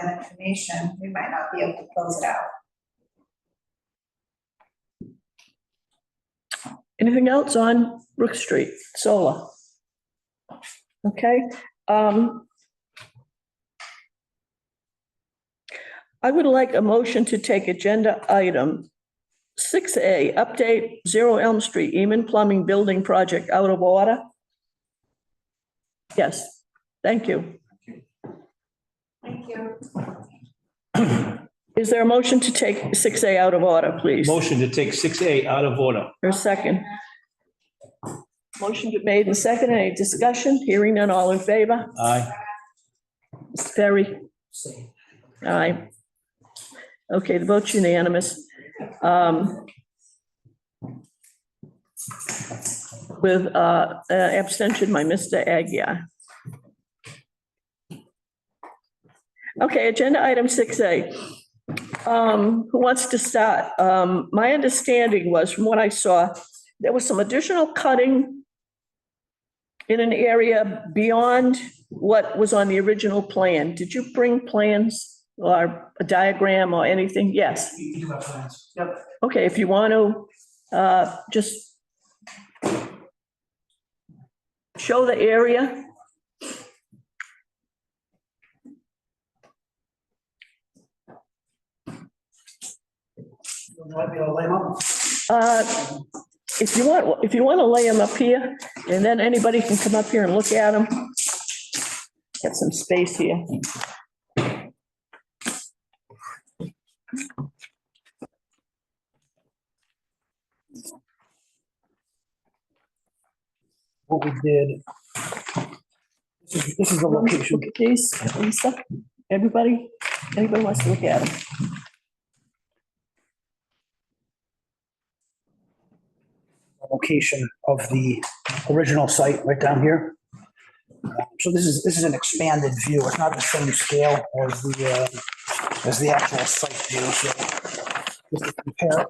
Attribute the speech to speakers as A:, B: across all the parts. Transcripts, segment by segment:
A: that information, we might not be able to close it out.
B: Anything else on Brook Street solar? Okay, um. I would like a motion to take agenda item six A, update Zero Elm Street, Eman Plumbing Building Project out of order. Yes, thank you.
A: Thank you.
B: Is there a motion to take six A out of order, please?
C: Motion to take six A out of order.
B: Or a second? Motion been made and seconded. Any discussion? Hearing none, all in favor?
C: Aye.
B: Mr. Ferry? Aye. Okay, the vote's unanimous. Um, With uh, uh, abstention by Mr. Agia. Okay, agenda item 6A. Um, Who wants to start? Um, My understanding was, from what I saw, there was some additional cutting in an area beyond what was on the original plan. Did you bring plans or a diagram or anything? Yes.
D: You do have plans. Yep.
B: Okay, if you want to, uh, just show the area.
D: You want me to lay them up?
B: Uh, If you want, if you want to lay them up here, and then anybody can come up here and look at them. Get some space here.
D: What we did. This is- This is the location.
B: Look at these, Lisa, everybody, anybody wants to look at them.
D: location of the original site right down here. Um, So this is, this is an expanded view. It's not the same scale as the, uh, as the actual site view. So just to compare it.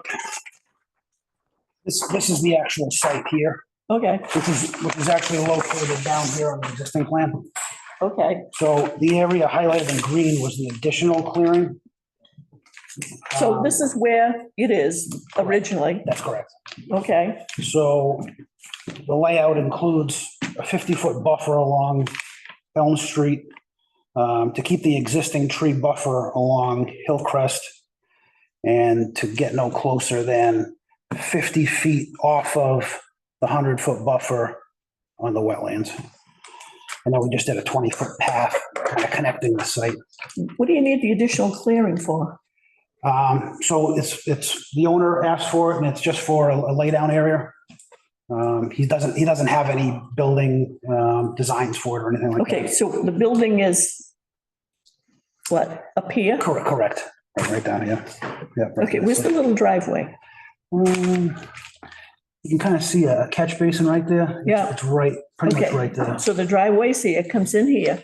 D: This, this is the actual site here,
B: Okay,
D: which is, which is actually located down here on the existing plan.
B: okay.
D: So the area highlighted in green was the additional clearing.
B: So
D: Um,
B: this is where it is originally,
D: That's correct.
B: okay?
D: So the layout includes a 50-foot buffer along Elm Street um, to keep the existing tree buffer along Hillcrest and to get no closer than 50 feet off of the 100-foot buffer on the wetlands. And then we just did a 20-foot path kind of connecting the site.
B: What do you need the additional clearing for?
D: Um, so it's, it's, the owner asked for it and it's just for a a laydown area. Um, he doesn't, he doesn't have any building, um, designs for it or anything like that.
B: Okay, so the building is what, up here?
D: Correct, correct. Right down here. Yeah. right
B: Okay,
D: here.
B: where's the little driveway?
D: Um, You can kind of see a catch basin right there.
B: Yeah.
D: It's right, pretty much
B: Okay.
D: right there.
B: So the driveway's here, comes in here.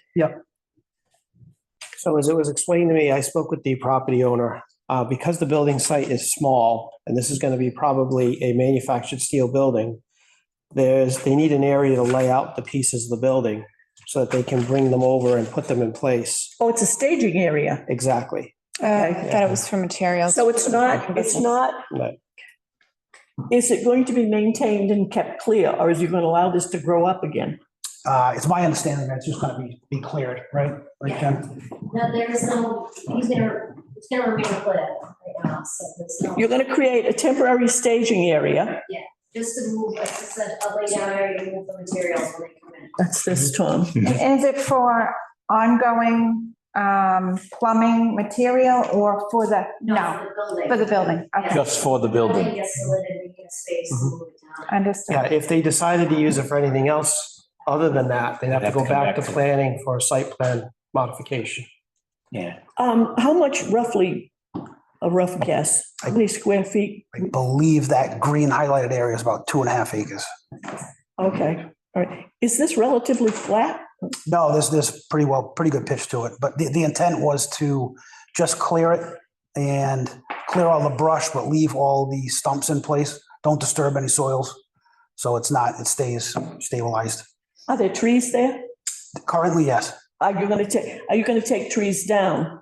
E: So as it was explained to me, I spoke with the property owner. Uh, Because the building site is small, and this is going to be probably a manufactured steel building, there's, they need an area to lay out the pieces of the building so that they can bring them over and put them in place.
B: Oh, it's a staging area.
E: Exactly.
F: Uh, I thought it was for materials.
B: So it's not, it's not,
E: Right.
B: is it going to be maintained and kept clear, or is you going to allow this to grow up again?
D: Uh, it's my understanding that it's just gonna be, be cleared, right? Right, Jen?
G: No, there's no, he's gonna, it's gonna remain clear right now, so there's no,
B: You're going to create a temporary staging area.
G: just to move, like I said, a lay down area, to move the materials when they come in.
B: That's this, Tom.
A: And Is it for ongoing um, plumbing material or for the, no,
G: For the building.
A: for the building? Okay,
C: Just for the
G: Building gets solid and we get a space to move it down.
A: understood.
E: Yeah, if they decided to use it for anything else other than that, they'd have to go back to planning for a site plan modification.
C: Yeah.
B: Um, how much roughly, a rough guess, how many square feet?
D: I believe that green highlighted area is about two and a half acres.
B: Okay, all right. Is this relatively flat?
D: No, there's, there's pretty well, pretty good pitch to it, but the, the intent was to just clear it and clear all the brush, but leave all the stumps in place. Don't disturb any soils. So it's not, it stays stabilized.
B: Are there trees there?
D: Currently, yes.
B: Are you gonna take, are you gonna take trees down?